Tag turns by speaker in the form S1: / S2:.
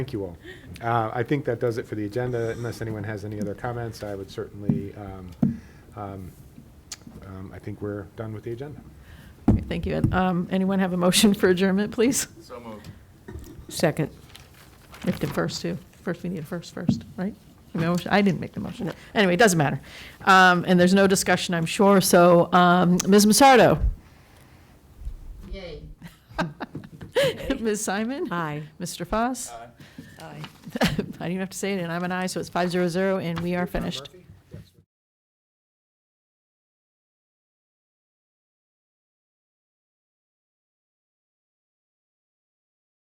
S1: Thank you all. Uh, I think that does it for the agenda. Unless anyone has any other comments, I would certainly, um, um, um, I think we're done with the agenda.
S2: Great, Thank you. Um, Anyone have a motion for adjournment, please?
S3: So moved.
S4: Second.
S2: If the first two, first, we need a first first, right? You know, I didn't make the motion. Anyway, it doesn't matter. Um, And there's no discussion, I'm sure, so um, Ms. Massardo?
S5: Yay.
S2: Ms. Simon?
S4: Aye.
S2: Mr. Foss?
S3: Aye.
S2: I didn't have to say it, and I'm an aye, so it's 500, and we are finished.
S1: Murphy?